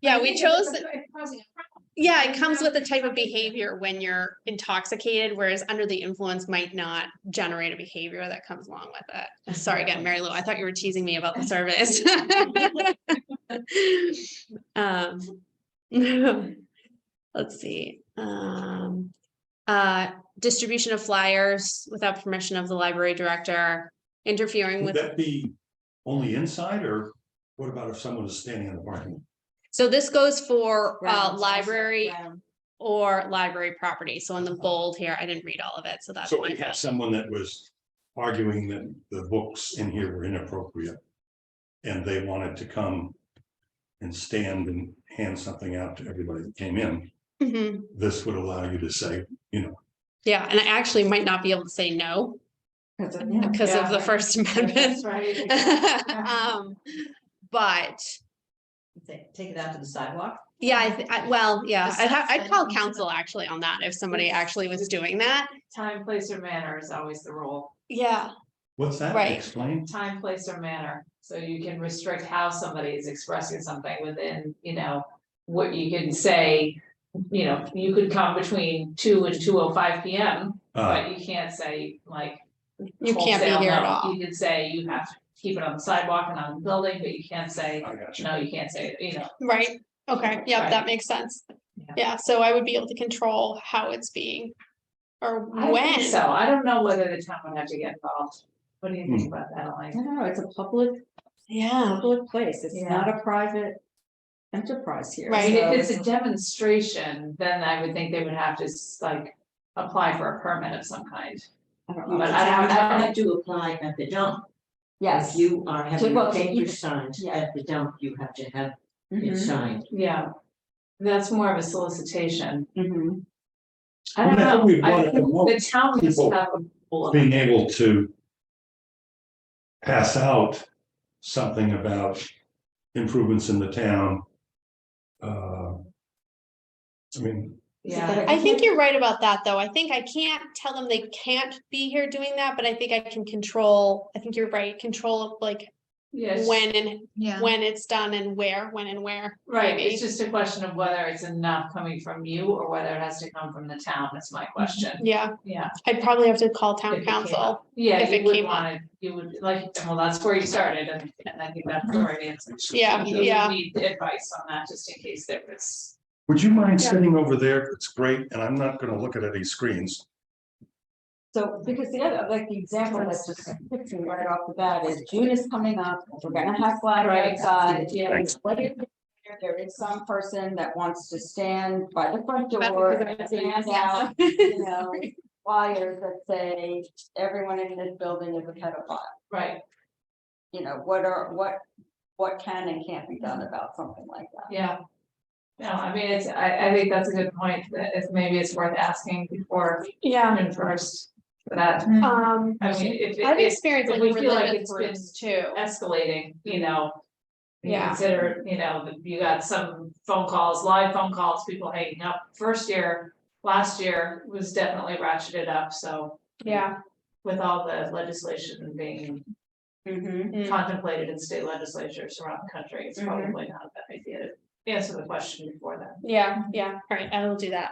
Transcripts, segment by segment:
Yeah, we chose, Causing a problem. yeah, it comes with the type of behavior when you're intoxicated, whereas under the influence might not generate a behavior that comes along with it. Sorry again, Mary Lou, I thought you were teasing me about the service. Um, Let's see, um, uh, distribution of flyers without permission of the library director, interfering Would with. that be only inside or what about if someone is standing in the parking? lot? So this goes for uh Grounds, library ground. or library property. So in the bold here, I didn't read all of it, so that's. So my we have fault. someone that was arguing that the books in here were inappropriate. And they wanted to come and stand and hand something out to everybody that came in. Mhm. This would allow you to say, Yeah, and I actually might not be able to say no Because of- yeah, because of the right. First Yeah, that's Amendment. right. Um, but Take take it out to the sidewalk. yeah, I, thi- I, well, yeah, Just I'd ha- I'd send call them to counsel actually on that if somebody Yes. actually was doing that. Time, place or manner is always the rule. Yeah, what's that? Right. Explain. Time, place or manner. So you can restrict how somebody is expressing something within, you know, what you can say. You know, you could come between two and two oh five P M, Uh, but you can't say like. you can't wholesale be here at no. all. You could say you have to keep it on the sidewalk and on the building, but you can't say, Ah, I got you. no, you can't say, you know. Right, okay, yeah, Right. that makes sense. Yeah. Yeah, so I would be able to control how it's being or I don't think when. So I don't know whether the town would have to get involved. What do you Hmm. think about that, Elaine? I don't know, it's a public, Yeah, public place, it's Yeah. not a private enterprise here. Right. And so- If it's a demonstration, then I would think they would have to s- like apply for a permit of some kind. I don't But know. I don't I know. have to apply at the dump. Yes. If you are having well, a okay, paper you- signed yeah. at the dump, you have to have it Mhm, signed. Yeah, that's more of a solicitation. mhm. I I don't mean, I think we know. I want to think The promote town needs to people have a rule. being able to pass out something about improvements in the town. Uh, I mean, Is it Yeah. that I think you're right about that, though. I think I can't tell them they can't be here doing that, but I think I can control, I think you're right, control of like Yes. when and Yeah. when it's done and where, when and where. Right, maybe. it's just a question of whether it's enough coming from you or whether it has to come from the town, That's my question, Yeah, yeah. I'd probably have to call If town it came council. up. Yeah, if you it would came up. want to, you would like, well, that's where you started and and I think that's the right answer. Yeah, You would yeah. Need advice on that, just in case there was. Would you mind sitting over there? It's great, and I'm not gonna look at any screens. So, because the other, like, the example that's just picturing right off the bat is June is coming up, we're gonna have flag Right. outside. Yeah. and what if There is some person that wants to stand by the front That's door because and hand out, you know, flyers that say, everyone in this building is a pedophile. Right, You know, what are, what, what can and can't be done about something like that? yeah. No, I mean, it's, I, I think that's a good point, that it's, maybe it's worth asking before, Yeah, and first, for that, um, I mean, if, I've if it's experienced if like we feel like religious it's groups too. escalating, you know. you Yeah. Consider, you know, that you got some phone calls, live phone calls, people hanging up, first year, last year was definitely ratcheted up, so. Yeah. With all the legislation being Mm-hmm. Mm. contemplated in state legislatures around the country, it's Mhm. probably not a bad idea to answer the question before then. Yeah, yeah, all right, I will do that.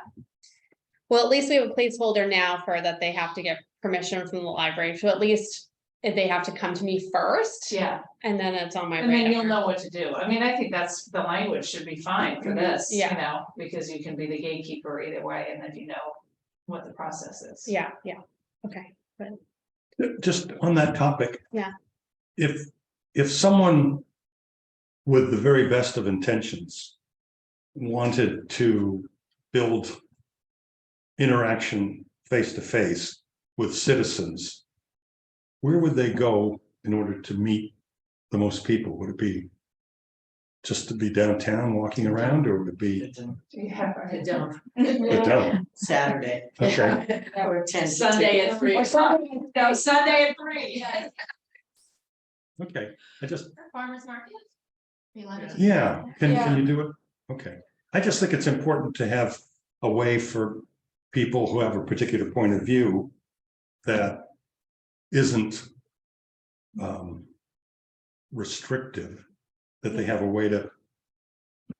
Well, at least we have a placeholder now for that they have to get permission from the library, so at least if they have to come to me first, Yeah, and then it's on my and then you'll radar. know what to do. I mean, I think that's, the language should be fine for this, you Yeah. know, because you can be the gatekeeper either way, and then you know what the process is. Yeah, yeah, okay. Just on that topic. Yeah. If, if someone with the very best of intentions wanted to build interaction face to face with citizens, where would they go in order to meet the most people? Would it be just to be downtown walking around or would it be? Yeah. The dump, But don't, Saturday. okay. Or ten. Sunday at three Or o'clock. something like No, Sunday at three. Okay, I just, Farmers market? We allowed to do that? yeah, can, Yeah. can you do it? Okay, I just think it's important to have a way for people who have a particular point of view that isn't um restrictive, that they have a way to